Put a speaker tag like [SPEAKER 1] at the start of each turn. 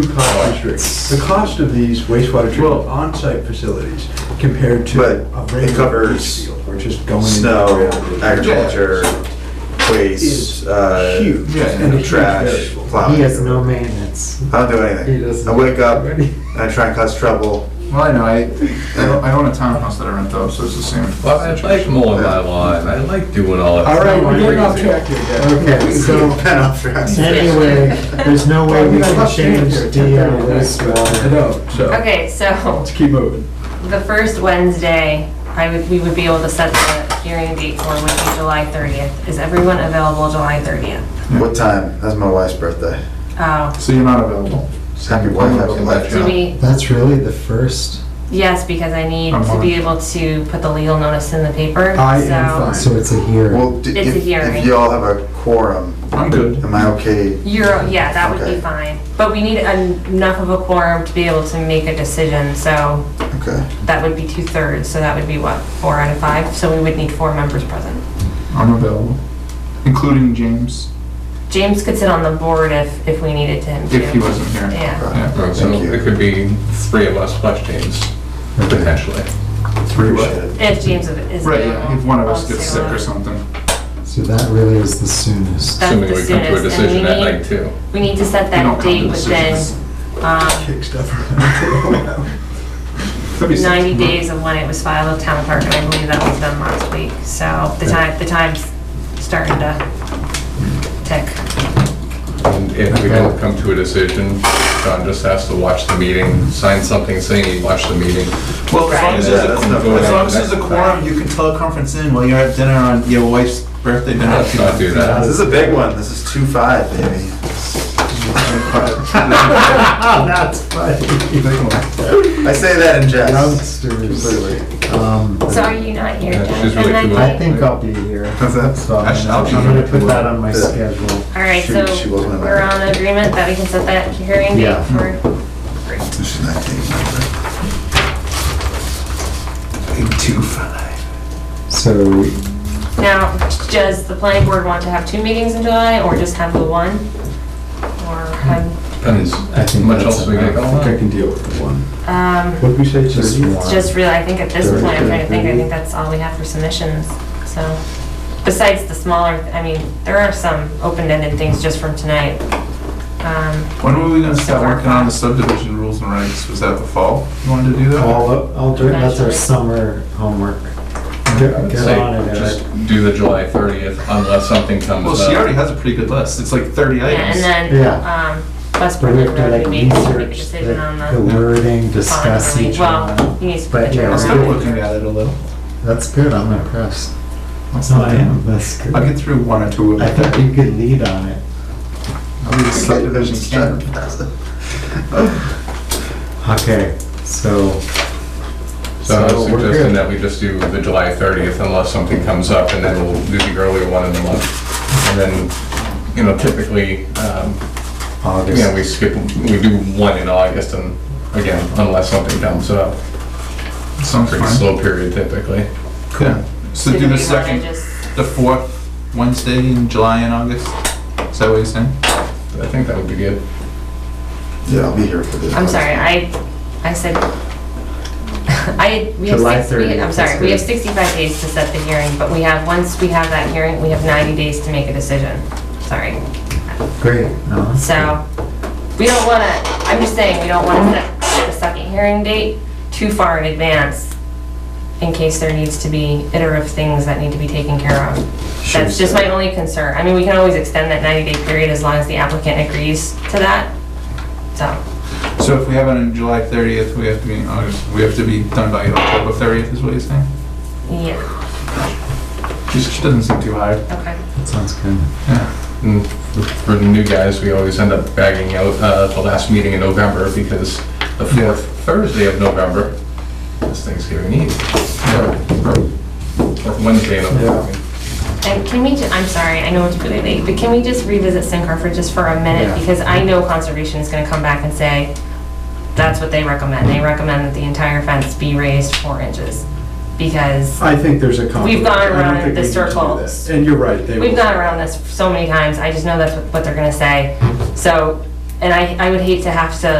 [SPEAKER 1] do cost restraints. The cost of these wastewater treatment on-site facilities compared to
[SPEAKER 2] But
[SPEAKER 1] a
[SPEAKER 2] it
[SPEAKER 1] regular leach
[SPEAKER 2] covers
[SPEAKER 1] field, we're just going. in
[SPEAKER 2] snow,
[SPEAKER 1] and around.
[SPEAKER 2] agriculture, waste,
[SPEAKER 1] Is
[SPEAKER 2] uh,
[SPEAKER 1] huge.
[SPEAKER 3] yeah,
[SPEAKER 1] and a huge
[SPEAKER 2] trash,
[SPEAKER 1] variable.
[SPEAKER 2] plowing.
[SPEAKER 4] He has no maintenance.
[SPEAKER 2] I don't do
[SPEAKER 4] He
[SPEAKER 2] anything.
[SPEAKER 4] doesn't.
[SPEAKER 2] I wake up, and I try and cause trouble.
[SPEAKER 3] Well, I know, I, I own- I own a townhouse that I rent though, so it's the same.
[SPEAKER 5] Well, I like mowing my lawn, I like doing all that.
[SPEAKER 1] All right, we're getting off
[SPEAKER 5] crazy.
[SPEAKER 1] track here, guys.
[SPEAKER 4] Okay, so
[SPEAKER 2] Pen off drugs.
[SPEAKER 4] anyway, there's no way we can change the uh,
[SPEAKER 1] I
[SPEAKER 4] wastewater.
[SPEAKER 1] know, so,
[SPEAKER 6] Okay, so
[SPEAKER 1] let's keep moving.
[SPEAKER 6] the first Wednesday, I would, we would be able to set the hearing date for would be July 30th. Is everyone available July 30th?
[SPEAKER 2] What time? That's my wife's birthday.
[SPEAKER 6] Oh,
[SPEAKER 3] So you're not available.
[SPEAKER 2] Happy wife, happy life.
[SPEAKER 6] do we,
[SPEAKER 4] That's really the first,
[SPEAKER 6] yes, because I need
[SPEAKER 3] I'm
[SPEAKER 6] to be
[SPEAKER 3] on.
[SPEAKER 6] able to put the legal notice in the paper,
[SPEAKER 1] I am
[SPEAKER 6] so.
[SPEAKER 1] fine.
[SPEAKER 4] so it's a hearing.
[SPEAKER 2] Well, d-
[SPEAKER 6] It's a
[SPEAKER 2] if, if
[SPEAKER 6] hearing.
[SPEAKER 2] y'all have a quorum,
[SPEAKER 3] I'm good.
[SPEAKER 2] am I okay?
[SPEAKER 6] You're, yeah, that would
[SPEAKER 2] Okay.
[SPEAKER 6] be fine. But we need en- enough of a quorum to be able to make a decision, so
[SPEAKER 2] Okay.
[SPEAKER 6] that would be two-thirds, so that would be what, four out of five? So we would need four members present.
[SPEAKER 3] I'm available, including James,
[SPEAKER 6] James could sit on the board if, if we needed him to.
[SPEAKER 3] if he wasn't here.
[SPEAKER 6] Yeah.
[SPEAKER 3] Yeah.
[SPEAKER 5] uh, So
[SPEAKER 2] Thank you.
[SPEAKER 5] it could be three of us plus James, potentially.
[SPEAKER 3] Three
[SPEAKER 2] Appreciate it.
[SPEAKER 6] If James is
[SPEAKER 3] Right,
[SPEAKER 6] available,
[SPEAKER 3] yeah, if one of us
[SPEAKER 6] I'll
[SPEAKER 3] gets
[SPEAKER 6] say
[SPEAKER 3] sick
[SPEAKER 6] one.
[SPEAKER 3] or something.
[SPEAKER 4] So that really is the soonest.
[SPEAKER 6] That's
[SPEAKER 5] Assuming
[SPEAKER 6] the
[SPEAKER 5] we come to a
[SPEAKER 6] soonest, and we
[SPEAKER 5] decision that
[SPEAKER 6] need-
[SPEAKER 5] night too.
[SPEAKER 6] We need to set
[SPEAKER 3] We don't
[SPEAKER 6] that
[SPEAKER 3] come to
[SPEAKER 6] date within
[SPEAKER 3] decisions.
[SPEAKER 6] um,
[SPEAKER 1] Kick stuff around.
[SPEAKER 3] Could be sick.
[SPEAKER 6] 90 days of when it was filed with town clerk, and I believe that was done last week. So the time, the time's starting to tick.
[SPEAKER 5] And if we don't come to a decision, John just has to watch the meeting, sign something saying he watched the meeting.
[SPEAKER 7] Well, as long as there's
[SPEAKER 2] Yeah,
[SPEAKER 7] a,
[SPEAKER 2] that's not
[SPEAKER 7] as long
[SPEAKER 5] bad.
[SPEAKER 7] as there's a quorum, you can teleconference in while you're at dinner on your wife's birthday dinner.
[SPEAKER 5] Let's not do that.
[SPEAKER 2] This is a big one. This is two five, baby.
[SPEAKER 4] That's funny.
[SPEAKER 2] I say that in jest.
[SPEAKER 4] Youngsters.
[SPEAKER 2] Completely.
[SPEAKER 4] Um,
[SPEAKER 6] So are you not here,
[SPEAKER 5] Yeah,
[SPEAKER 6] Jen?
[SPEAKER 5] she's really
[SPEAKER 6] And then-
[SPEAKER 5] cool.
[SPEAKER 4] I think I'll be here.
[SPEAKER 2] What's that?
[SPEAKER 4] So I'm
[SPEAKER 2] Actually, I'll
[SPEAKER 4] gonna-
[SPEAKER 2] be
[SPEAKER 4] I'm gonna
[SPEAKER 2] here.
[SPEAKER 4] put that on my
[SPEAKER 2] Yeah.
[SPEAKER 4] schedule.
[SPEAKER 6] All right,
[SPEAKER 2] She-
[SPEAKER 6] so
[SPEAKER 2] she wasn't in
[SPEAKER 6] we're
[SPEAKER 2] that.
[SPEAKER 6] on agreement that we can set that hearing
[SPEAKER 4] Yeah.
[SPEAKER 6] date for,
[SPEAKER 2] This is 19. Big two five.
[SPEAKER 4] So
[SPEAKER 6] now, does the planning board want to have two meetings in July, or just have the one? Or, have-
[SPEAKER 5] Depends
[SPEAKER 4] I think
[SPEAKER 5] much
[SPEAKER 4] that's
[SPEAKER 5] else we got
[SPEAKER 4] enough.
[SPEAKER 5] going
[SPEAKER 1] I think I
[SPEAKER 5] on.
[SPEAKER 1] can deal with the one.
[SPEAKER 6] um...
[SPEAKER 1] What did we say,
[SPEAKER 4] just
[SPEAKER 1] thirty?
[SPEAKER 4] one.
[SPEAKER 6] Just really, I think at this
[SPEAKER 1] Very
[SPEAKER 6] point, I'm
[SPEAKER 1] good.
[SPEAKER 6] trying to think, I think that's all we have for submissions, so. Besides the smaller, I mean, there are some open-ended things just from tonight. Um,
[SPEAKER 7] When were we gonna start working on the subdivision rules and regs? Was that the fall? You wanted to do that?
[SPEAKER 4] All up, all during, that's our summer homework. Get
[SPEAKER 5] I would
[SPEAKER 4] get
[SPEAKER 5] say
[SPEAKER 4] on it,
[SPEAKER 5] Just
[SPEAKER 4] Eric.
[SPEAKER 5] do the July 30th unless something comes
[SPEAKER 7] Well,
[SPEAKER 5] up.
[SPEAKER 7] she already has a pretty good list. It's like thirty
[SPEAKER 6] yeah,
[SPEAKER 7] items.
[SPEAKER 6] And then,
[SPEAKER 4] Yeah.
[SPEAKER 6] um, West
[SPEAKER 4] But we
[SPEAKER 6] Berlin
[SPEAKER 4] have to
[SPEAKER 6] Road,
[SPEAKER 4] like
[SPEAKER 6] we need to make a
[SPEAKER 4] research
[SPEAKER 6] decision on
[SPEAKER 4] the, the
[SPEAKER 6] the.
[SPEAKER 4] wording, discuss
[SPEAKER 6] bond
[SPEAKER 4] each
[SPEAKER 6] relief.
[SPEAKER 4] one.
[SPEAKER 6] Well, he needs to
[SPEAKER 4] But
[SPEAKER 6] put the
[SPEAKER 4] yeah,
[SPEAKER 7] I'm
[SPEAKER 6] turnaround.
[SPEAKER 7] still looking at it a little.
[SPEAKER 4] That's good, I'm impressed.
[SPEAKER 7] That's
[SPEAKER 4] No,
[SPEAKER 7] not
[SPEAKER 4] I
[SPEAKER 7] it.
[SPEAKER 4] am, that's good.
[SPEAKER 7] I'll get through one or two of
[SPEAKER 4] I
[SPEAKER 7] them.
[SPEAKER 4] thought you could lead on it.
[SPEAKER 7] I'll do the subdivision
[SPEAKER 2] Subdivision.
[SPEAKER 7] king.
[SPEAKER 4] Okay, so.
[SPEAKER 5] So I was
[SPEAKER 4] we're
[SPEAKER 5] suggesting
[SPEAKER 4] good.
[SPEAKER 5] that we just do the July 30th unless something comes up, and then we'll do the earlier one in the month. And then, you know, typically, um, you know,
[SPEAKER 4] August,
[SPEAKER 5] we skip, we do one in August, and again, unless something comes up.
[SPEAKER 7] Sounds
[SPEAKER 5] Pretty
[SPEAKER 7] fine.
[SPEAKER 5] slow period typically.
[SPEAKER 7] Cool. So
[SPEAKER 6] So
[SPEAKER 7] do the
[SPEAKER 6] we wanna
[SPEAKER 7] second,
[SPEAKER 6] just-
[SPEAKER 7] the fourth Wednesday in July and August? Is that what you're saying?
[SPEAKER 5] I think that would be good.
[SPEAKER 2] Yeah, I'll be here for this.
[SPEAKER 6] I'm sorry, I, I said, I, we have
[SPEAKER 4] July
[SPEAKER 6] six, we-
[SPEAKER 4] 30th,
[SPEAKER 6] I'm
[SPEAKER 4] that's
[SPEAKER 6] sorry, we have
[SPEAKER 4] good.
[SPEAKER 6] 65 days to set the hearing, but we have, once we have that hearing, we have 90 days to make a decision. Sorry.
[SPEAKER 4] great, no, that's
[SPEAKER 6] So, we don't wanna, I'm just saying, we don't wanna set- set a second hearing date too far in advance in case there needs to be iterative things that need to be taken care of.
[SPEAKER 2] Sure,
[SPEAKER 6] That's just
[SPEAKER 2] sir.
[SPEAKER 6] my only concern. I mean, we can always extend that 90-day period as long as the applicant agrees to that, so.
[SPEAKER 7] So if we have it on July 30th, we have to be in August, we have to be done by October 30th, is what you're saying?
[SPEAKER 6] Yeah,
[SPEAKER 7] Just doesn't seem too hard.
[SPEAKER 6] okay.
[SPEAKER 4] good. that sounds good.
[SPEAKER 7] Yeah.
[SPEAKER 5] And for- For the new guys, we always end up bagging out uh, the last meeting in November because the fourth Thursday of November is Thanksgiving Eve. Or Wednesday in November.
[SPEAKER 6] And can we, ju- I'm sorry, I know it's really late, but can we just revisit Sincor for just for a
[SPEAKER 4] Yeah.
[SPEAKER 6] minute? Because I know conservation is gonna come back and say, that's what they recommend. They recommend that the entire fence be raised four inches. Because
[SPEAKER 1] I think there's a conflict.
[SPEAKER 6] We've gone
[SPEAKER 1] I don't
[SPEAKER 6] around
[SPEAKER 1] think we
[SPEAKER 6] the
[SPEAKER 1] need to do
[SPEAKER 6] circle.
[SPEAKER 1] that. And you're right, they will.
[SPEAKER 6] we've gone around this so many times, I just know that's what- what they're gonna say. So And I, I would hate to have to